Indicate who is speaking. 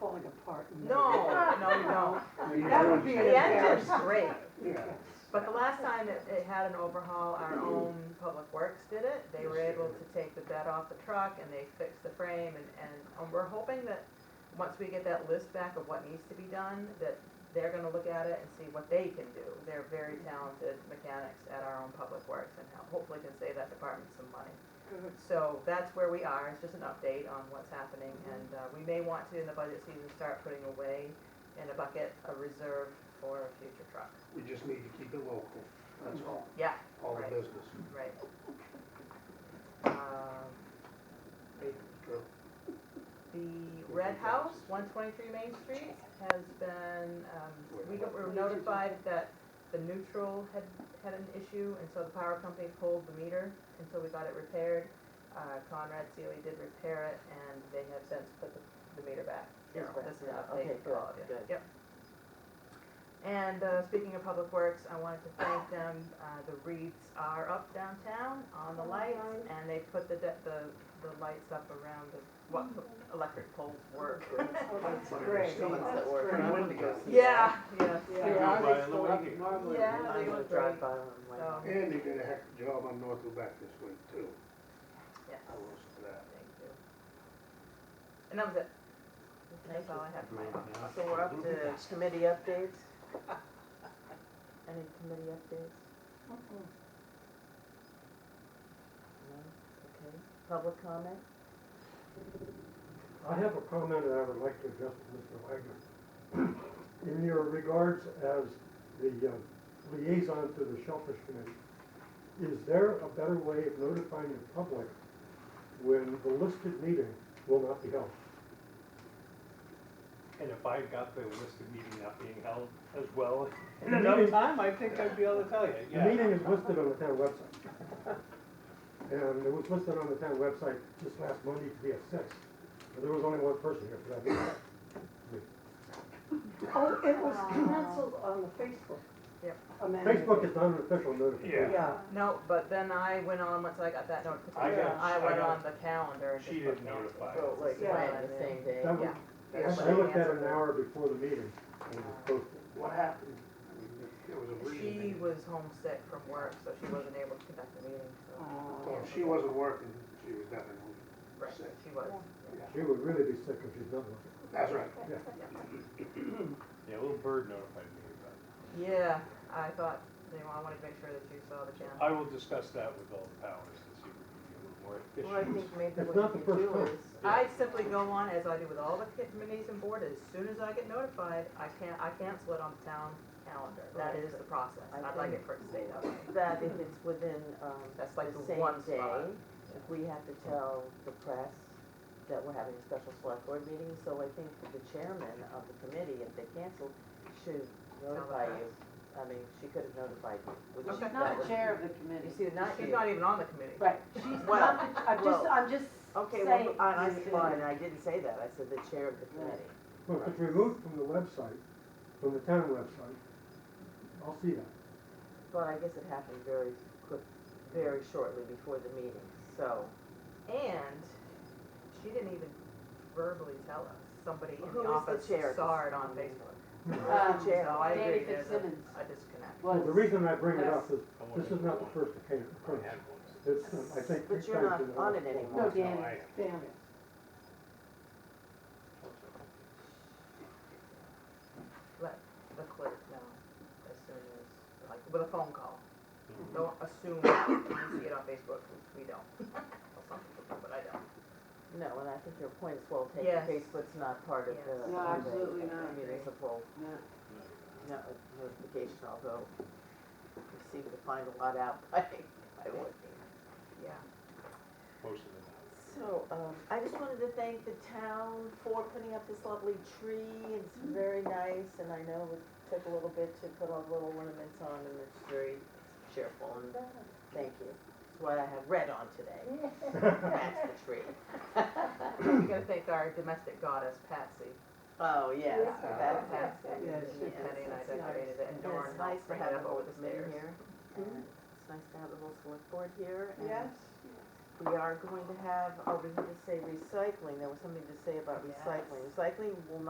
Speaker 1: No, no, no.
Speaker 2: That would be an
Speaker 1: The engine's
Speaker 2: embarrassment.
Speaker 1: great,
Speaker 2: Yeah.
Speaker 1: but the last time it, it had an overhaul, our own Public Works did it. They were able to take the bed off the truck and they fixed the frame and, and we're hoping that once we get that list back of what needs to be done, that they're gonna look at it and see what they can do. They're very talented mechanics at our own Public Works and ho- hopefully can save that department some money.
Speaker 2: Good.
Speaker 1: So that's where we are, it's just an update on what's happening, and uh, we may want to, in the budget season, start putting away in a bucket a reserve for a future truck.
Speaker 2: We just need to keep it local, that's all,
Speaker 1: Yeah,
Speaker 2: all the
Speaker 1: Right.
Speaker 2: business.
Speaker 1: right. Um,
Speaker 2: Good.
Speaker 1: The Red House, one twenty-three Main Street, has been, um, we got- we were notified that the neutral had, had an issue, and so the power company pulled the meter until we got it repaired. Uh, Conrad Sealy did repair it, and they have since put the, the meter back.
Speaker 3: It's
Speaker 1: So
Speaker 3: back
Speaker 1: This is
Speaker 3: now.
Speaker 1: an update
Speaker 3: Okay,
Speaker 1: for all of you.
Speaker 3: good, good.
Speaker 1: Yep. And, uh, speaking of Public Works, I wanted to thank them, uh, the wreaths are up downtown on the lights, and they put the, de- the, the lights up around the, what the
Speaker 3: Mm-hmm.
Speaker 1: electric poles were.
Speaker 2: That's
Speaker 3: The ones that work.
Speaker 2: Pretty
Speaker 3: I'm gonna
Speaker 2: windy
Speaker 3: go
Speaker 2: out
Speaker 3: see
Speaker 1: Yeah, yeah.
Speaker 3: Yeah.
Speaker 4: Yeah.
Speaker 5: by on the way here.
Speaker 1: Yeah.
Speaker 3: that.
Speaker 1: they
Speaker 3: I'm gonna
Speaker 1: look
Speaker 3: drive
Speaker 1: great.
Speaker 3: by on my.
Speaker 1: So-
Speaker 2: And they did a heck of a job on North Lubec this week too,
Speaker 1: Yes,
Speaker 2: I will say that.
Speaker 1: thank you. And that was it. That's all I had for my
Speaker 3: So we're up to committee updates? Any committee updates? No, okay. Public comment?
Speaker 6: I have a comment that I would like to address to Mr. Wagner. In your regards as the uh, liaison to the Shellfish Committee, is there a better way of notifying the public when the listed meeting will not be held?
Speaker 4: And if I got the list of meeting not being held as well
Speaker 6: And
Speaker 4: in
Speaker 6: the
Speaker 4: another
Speaker 6: meeting-
Speaker 4: time, I think I'd be able to tell you,
Speaker 6: The
Speaker 4: yeah.
Speaker 6: meeting is listed on the town website. And it was listed on the town website this last Monday to be at six, but there was only one person here for that meeting.
Speaker 2: Oh, it was canceled on the Facebook.
Speaker 1: Yep.
Speaker 6: Facebook is not an official notification.
Speaker 4: Yeah.
Speaker 1: No, but then I went on, once I got that
Speaker 4: I
Speaker 1: notification,
Speaker 4: got-
Speaker 1: I
Speaker 4: I
Speaker 1: went
Speaker 4: got-
Speaker 1: on the calendar and just
Speaker 4: She
Speaker 1: put
Speaker 4: didn't
Speaker 1: cancel.
Speaker 4: notify.
Speaker 3: So like
Speaker 1: Yeah.
Speaker 3: when, the same day?
Speaker 6: That was-
Speaker 1: Yeah.
Speaker 6: I I looked at it an hour before the meeting and
Speaker 3: Uh-huh.
Speaker 6: it was posted.
Speaker 2: What happened? I mean, There was a
Speaker 1: She
Speaker 2: reason.
Speaker 1: was homesick from work, so she wasn't able to conduct the meeting, so.
Speaker 2: Well, if Oh, she wasn't working, she was definitely
Speaker 1: Right,
Speaker 2: sick.
Speaker 1: she was.
Speaker 6: She would really be sick if she's not looking.
Speaker 2: That's right.
Speaker 4: Yeah, a little bird notified me about it.
Speaker 1: Yeah, I thought, you know, I wanted to make sure that you saw the channel.
Speaker 4: I will discuss that with all the powers and see if we can be a little more
Speaker 3: Well, I
Speaker 4: efficient.
Speaker 3: think maybe
Speaker 6: It's
Speaker 3: what
Speaker 6: not
Speaker 3: you
Speaker 6: the
Speaker 3: can do
Speaker 6: first
Speaker 3: is,
Speaker 1: I simply go on, as I do with all the committees and boards, as soon as I get notified, I can't, I cancel it on the town calendar. That
Speaker 3: Right.
Speaker 1: is the process.
Speaker 3: I
Speaker 1: I'd like
Speaker 3: think-
Speaker 1: it for it to stay that way.
Speaker 3: that if it's within, um,
Speaker 1: That's like
Speaker 3: the
Speaker 1: the
Speaker 3: same
Speaker 1: one
Speaker 3: day,
Speaker 1: spot.
Speaker 3: if we have to tell the press that we're having a special select board meeting, so I think that the chairman of the committee, if they cancel, should notify you. I mean, she could have notified you, which
Speaker 1: Okay.
Speaker 3: that
Speaker 7: Not
Speaker 3: was-
Speaker 7: the chair of the
Speaker 3: You
Speaker 7: committee.
Speaker 3: see, not
Speaker 1: She's
Speaker 3: you.
Speaker 1: not even on the committee.
Speaker 7: Right, she's
Speaker 3: Well,
Speaker 7: not the, I'm just,
Speaker 3: well,
Speaker 7: I'm just
Speaker 3: Okay,
Speaker 7: saying.
Speaker 3: well, I, I,
Speaker 7: just-
Speaker 3: fine, I didn't say that, I said the chair of the committee.
Speaker 6: Well, if it's removed from the website, from the town website, I'll see that.
Speaker 3: But I guess it happened very quick, very shortly before the meeting, so.
Speaker 1: And she didn't even verbally tell us. Somebody in
Speaker 3: Who
Speaker 1: the
Speaker 3: is the
Speaker 1: office
Speaker 3: chair?
Speaker 1: saw it on Facebook.
Speaker 7: Um,
Speaker 3: chair.
Speaker 1: So I
Speaker 7: Danny
Speaker 1: agree, there's a
Speaker 7: Fitzsimmons.
Speaker 1: a disconnect.
Speaker 6: Well, the reason I bring it up
Speaker 7: that's-
Speaker 6: is, this is not the first occasion,
Speaker 4: I had one.
Speaker 6: it's, uh, I think.
Speaker 3: But
Speaker 6: three
Speaker 3: you're
Speaker 6: times
Speaker 3: not
Speaker 6: in the
Speaker 3: on
Speaker 6: last
Speaker 3: it
Speaker 6: four
Speaker 3: anymore.
Speaker 7: No,
Speaker 6: months.
Speaker 7: Dan,
Speaker 4: No, I-
Speaker 7: Dan.
Speaker 1: Let the clerk know as soon as, like, with a phone call.
Speaker 3: Mm-hmm.
Speaker 1: Don't assume you see it on Facebook, we don't. Well, Some people do, but I don't.
Speaker 3: No, and I think your point is well taken,
Speaker 1: Yes.
Speaker 3: Facebook's not part of
Speaker 1: Yes.
Speaker 3: the.
Speaker 7: No, absolutely
Speaker 3: the
Speaker 7: not.
Speaker 3: Municipal
Speaker 7: No.
Speaker 3: no- notification, although you seem to find a lot out by, by looking.
Speaker 1: Yeah.
Speaker 4: Most of them.
Speaker 3: So, um, I just wanted to thank the town for putting up this lovely tree, it's very nice, and I know it took a little bit to put all the little ornaments on, and it's very cheerful, and thank you. That's why I have red on today, that's the tree.
Speaker 1: We gotta thank our domestic goddess, Patsy.
Speaker 3: Oh, yes,
Speaker 2: Yeah.
Speaker 3: that's, that's,
Speaker 1: Patsy,
Speaker 7: Yeah, she
Speaker 1: Penny and I
Speaker 3: is.
Speaker 1: decorated it, and
Speaker 3: and
Speaker 1: Doran
Speaker 3: it's nice
Speaker 1: helped
Speaker 3: to
Speaker 1: bring it up
Speaker 3: have the Mm-hmm. whole
Speaker 1: over the stairs.
Speaker 3: committee here. and It's nice to have the whole select board here, and
Speaker 7: Yes,
Speaker 3: We are going to have, oh, we need to say recycling, there was something to say about
Speaker 1: Yes.
Speaker 3: recycling. Recycling will